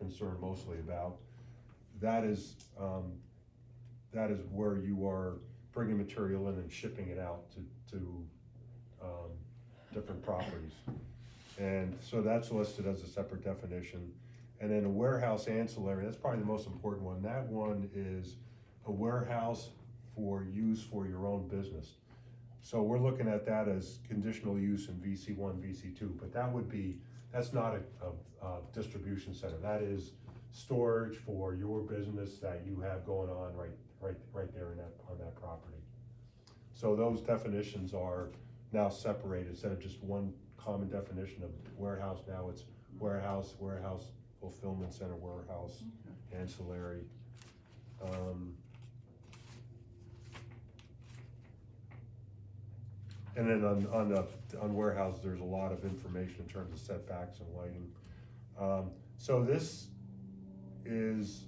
concerned mostly about, that is, um, that is where you are bringing material in and shipping it out to, to, um, different properties. And so that's listed as a separate definition. And then a warehouse ancillary, that's probably the most important one. That one is a warehouse for use for your own business. So we're looking at that as conditional use in VC one, VC two, but that would be, that's not a, a, a distribution center. That is storage for your business that you have going on right, right, right there in that, on that property. So those definitions are now separated, instead of just one common definition of warehouse, now it's warehouse, warehouse fulfillment center, warehouse ancillary. Um, And then on, on the, on warehouse, there's a lot of information in terms of setbacks and lighting. Um, so this is,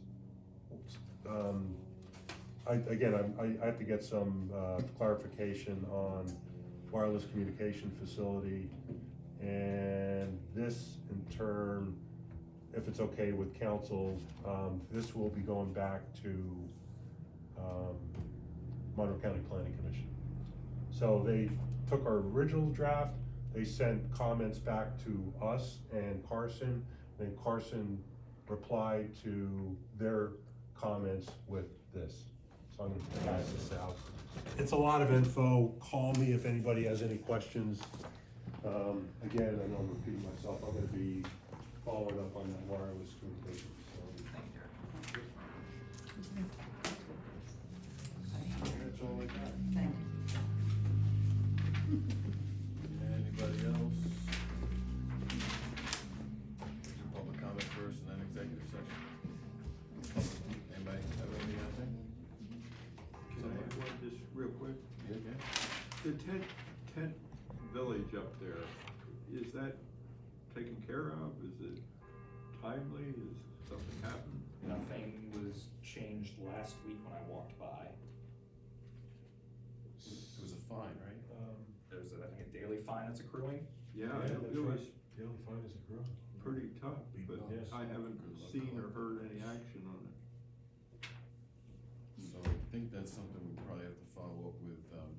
um, I, again, I'm- I, I have to get some, uh, clarification on wireless communication facility. And this in turn, if it's okay with council, um, this will be going back to, um, Monroe County Planning Commission. So they took our original draft, they sent comments back to us and Carson, then Carson replied to their comments with this. So I'm gonna pass this out. It's a lot of info, call me if anybody has any questions. Um, again, I know I'm repeating myself, I'm gonna be following up on that wireless communication facility. That's all I got. Thank Anybody else? Public comment first and then executive session. Anybody have anything out there? Can I add one just real quick? You okay? The tent, tent village up there, is that taken care of? Is it timely? Is something happened? Nothing was changed last week when I walked by. It was a fine, right? Um, There's, I think, a daily fine that's accruing. Yeah, Yeah, it- that's it was right. The only fine is a growth. pretty tough, but Yes. I haven't Good luck. seen or heard any action on it. So I think that's something we probably have to follow up with, um,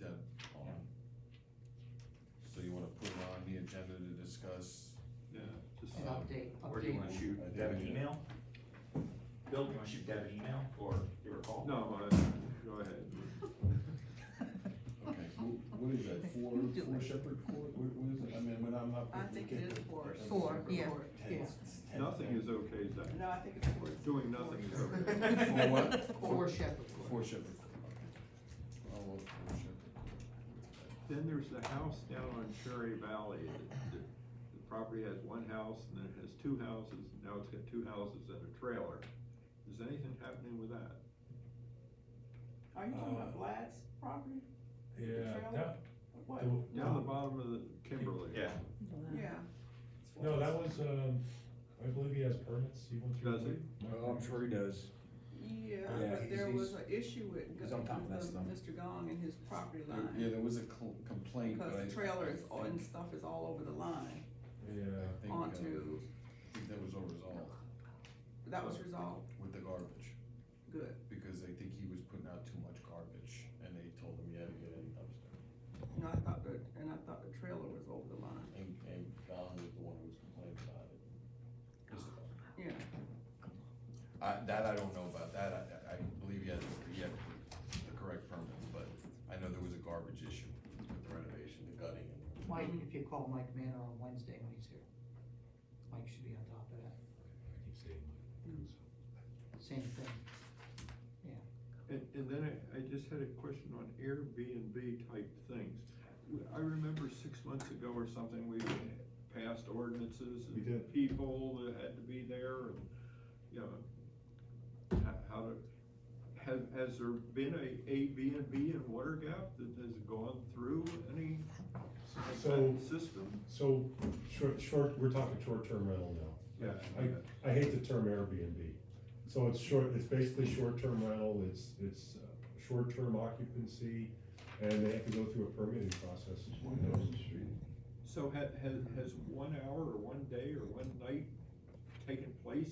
Deb on. So you wanna put it on the agenda to discuss? Yeah, just, you. Update, Or do you wanna update. shoot I Deb an think- email? Bill, do you wanna shoot Deb an email or give her a call? no, I, go ahead. Okay, wh- what is that, four, You do four it. Shepherd Court, what, what is it, I mean, when I'm up. I think it is four. Four, yeah, yeah. Tense, it's tense. Nothing is okay, Zach. No, I think it's four. Doing nothing is okay. For what? Four Shepherd Four Shepherd Court. I'll look for Shepherd Court. Then there's the house down on Cherry Valley. The- The the property has one house and then it has two houses. Now it's got two houses and a trailer. Is anything happening with that? Are you Uh, talking about Vlad's property? Yeah, Michelle? that, What? the- Down the bottom of the Kimberly. Yeah. Yeah, it's one of no, that those. was, um, I believe he has permits, he went through. Does he? Well, Oh, I'm sure he does. yeah, Yeah, but he's- there was an he's- issue with he's on top of that with stuff. Mr. Gong and his property There- Yeah, line. there was a cl- complaint, but I. Because the trailer is, all- I and think- stuff is all over the line I Yeah, think, uh, onto, I think that was all resolved that was resolved, with the garbage, good. because I think he was putting out too much garbage, and they told him, you had to get in dumpster. And I thought that, and I thought the trailer was over the line, And, and Don was the one who was complaining about it. Just- yeah. I, that I don't know about, that I- I, I believe he had, he had the correct permits, but I know there was a garbage issue with the renovation, the gutting. Mike, if you call Mike Manor on Wednesday when he's here, Mike should be on top of that, I keep saying. same thing. And, and then I, I just had a question on Airbnb type things. W- I remember six months ago or something, we passed ordinances We and did. people that had to be there and, you know, ho- how to, has, has there been a A B and B in Water Gap that has gone through any like So- that system? So, short, short, we're talking short-term rental now. Yeah. I, I hate the term Airbnb. So it's short, it's basically short-term rental, it's, it's uh, short-term occupancy, and they have to go through a permitting process. So ha- has, has one hour or one day or one night taken place